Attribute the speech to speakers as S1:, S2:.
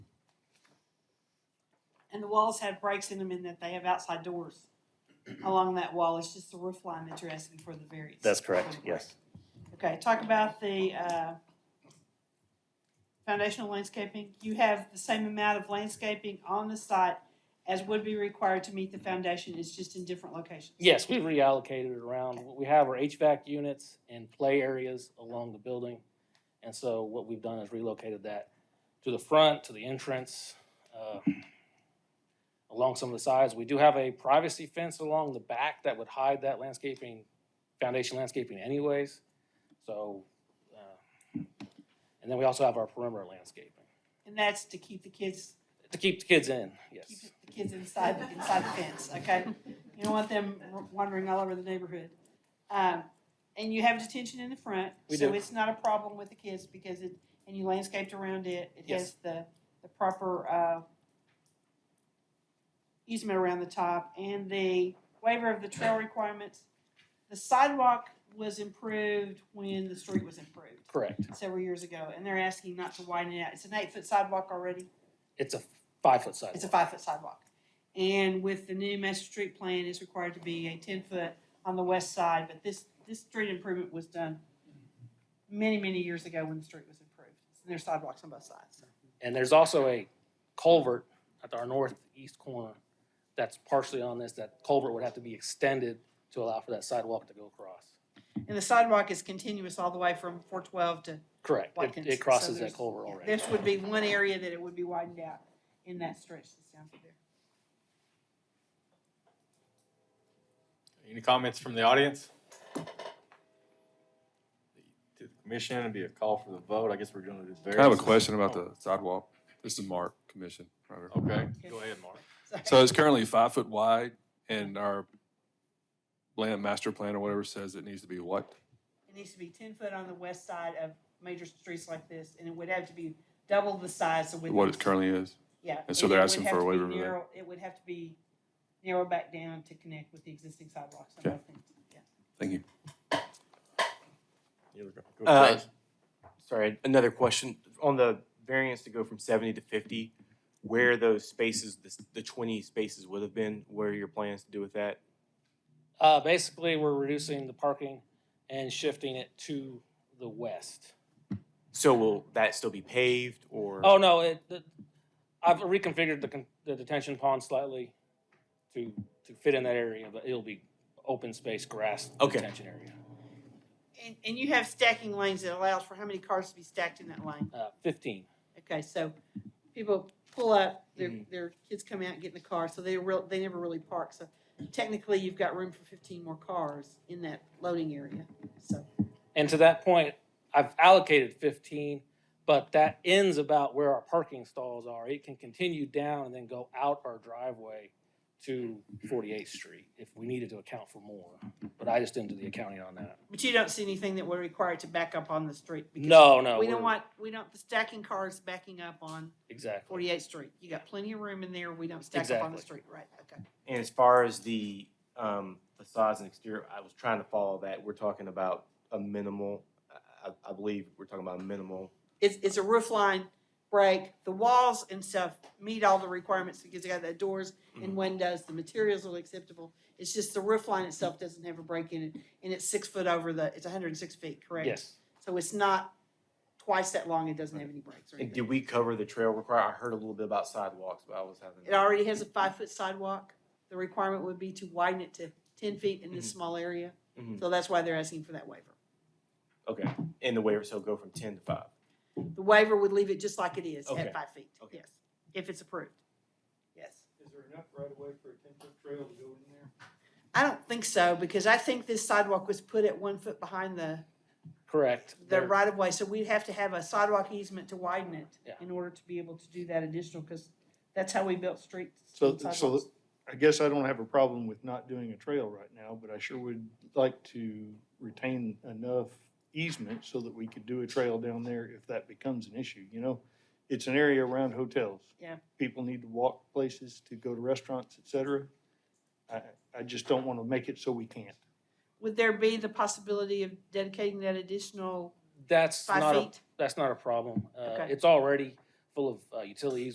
S1: And the walls have breaks in them in that they have outside doors along that wall. It's just the roof line that you're asking for the variance.
S2: That's correct, yes.
S1: Okay, talk about the, uh, foundational landscaping. You have the same amount of landscaping on the site as would be required to meet the foundation. It's just in different locations.
S3: Yes, we reallocated it around. What we have are HVAC units and play areas along the building. And so what we've done is relocated that to the front, to the entrance, uh, along some of the sides. We do have a privacy fence along the back that would hide that landscaping, foundation landscaping anyways. So, uh, and then we also have our perimeter landscaping
S1: And that's to keep the kids,
S3: to keep the kids in,
S1: keep
S3: yes.
S1: the kids inside, inside the fence, okay? You don't want them wandering all over the neighborhood. Um, and you have detention in the front,
S3: We
S1: so
S3: do.
S1: it's not a problem with the kids because it, and you landscaped around it. It has
S3: Yes.
S1: the, the proper, uh, easement around the top and the waiver of the trail requirements. The sidewalk was improved when the street was improved
S3: Correct.
S1: several years ago, and they're asking not to widen it out. It's an eight-foot sidewalk already.
S3: It's a five-foot sidewalk.
S1: It's a five-foot sidewalk. And with the new master street plan, it's required to be a ten-foot on the west side, but this, this street improvement was done many, many years ago when the street was improved. And there's sidewalks on both sides.
S3: And there's also a culvert at our northeast corner that's partially on this, that culvert would have to be extended to allow for that sidewalk to go across.
S1: And the sidewalk is continuous all the way from four twelve to,
S3: Correct,
S1: Watkins,
S3: it,
S1: so
S3: it crosses
S1: there's-
S3: that culvert already.
S1: this would be one area that it would be widened out in that stretch that's down through there.
S4: Any comments from the audience? To the commission, it'd be a call for the vote. I guess we're doing this very.
S5: I have a question about the sidewalk. This is Mark, commission. right here.
S4: Oh, Okay, go ahead, Mark.
S1: Sorry.
S5: So it's currently five foot wide and our land master plan or whatever says it needs to be what?
S1: It needs to be ten foot on the west side of major streets like this, and it would have to be double the size of
S5: What it
S1: currently.
S5: currently is?
S1: Yeah.
S5: And so
S1: it
S5: they're
S1: would
S5: asking
S1: have
S5: for a
S1: to be
S5: waiver of that.
S1: narrow- It would have to be narrowed back down to connect with the existing sidewalks and
S5: Okay.
S1: both things, yeah.
S5: Thank you.
S4: You go- go
S6: Uh,
S4: first.
S6: Sorry, another question. On the variance to go from seventy to fifty, where those spaces, the, s- the twenty spaces would have been, what are your plans to do with that?
S3: Uh, basically, we're reducing the parking and shifting it to the west.
S6: So will that still be paved or?
S3: Oh, no, it, the- I've reconfigured the, con- the detention pond slightly to, to fit in that area, but it'll be open space, grass
S6: Okay.
S3: detention area.
S1: And, and you have stacking lanes that allows for how many cars to be stacked in that lane?
S3: Uh, fifteen,
S1: Okay, so people pull up, their,
S5: Mm-hmm.
S6: Mhm.
S1: their kids come out and get in the car, so they real, they never really park, so technically you've got room for fifteen more cars in that loading area, so.
S3: And to that point, I've allocated fifteen, but that ends about where our parking stalls are. It can continue down and then go out our driveway to Forty-Eighth Street if we needed to account for more. But I just didn't do the accounting on that.
S1: But you don't see anything that would require it to back up on the street? because
S3: No, no.
S1: We don't
S3: we're-
S1: want, we don't, the stacking cars backing up on
S3: Exactly.
S1: Forty-eighth Street. You got plenty of room in there. We don't stack up on the
S3: Exactly.
S1: street, right? Okay.
S6: And as far as the, um, facades and exterior, I was trying to follow that. We're talking about a minimal, I, I- I believe we're talking about a minimal.
S1: It's, it's a roof line break. The walls and stuff meet all the requirements because they got the doors and
S3: Mm-hmm.
S6: Mhm.
S1: windows. The materials are acceptable. It's just the roof line itself doesn't have a break in it, and it's six foot over the, it's hundred and six feet, correct?
S3: Yes.
S1: So it's not twice that long. It doesn't have any breaks or
S6: And did
S1: anything.
S6: we cover the trail require? I heard a little bit about sidewalks, but I was having.
S1: It already has a five-foot sidewalk. The requirement would be to widen it to ten feet in this
S3: Mm-hmm.
S6: Mhm.
S1: small area.
S6: Mhm.
S1: So that's why they're asking for that waiver.
S6: Okay, and the waiver, so go from ten to five.
S1: The waiver would leave it just like it is
S6: Okay.
S1: at five feet,
S6: Okay.
S1: yes, if it's approved. Yes.
S7: Is there enough right of way for a ten-foot trail to go in there?
S1: I don't think so, because I think this sidewalk was put at one foot behind the,
S3: Correct.
S1: the
S3: There-
S1: right of way, so we'd have to have a sidewalk easement to widen it
S3: Yeah.
S1: in order to be able to do that additional, because that's how we built streets.
S7: So,
S1: and
S7: so
S1: sidewalks.
S7: I guess I don't have a problem with not doing a trail right now, but I sure would like to retain enough easement so that we could do a trail down there if that becomes an issue, you know? It's an area around hotels.
S1: Yeah.
S7: People need to walk places to go to restaurants, et cetera. I, I just don't want to make it so we can't.
S1: Would there be the possibility of dedicating that additional
S3: That's not
S1: five
S3: a,
S1: feet?
S3: that's not a problem. Uh,
S1: Okay.
S3: it's already full of uh, utilities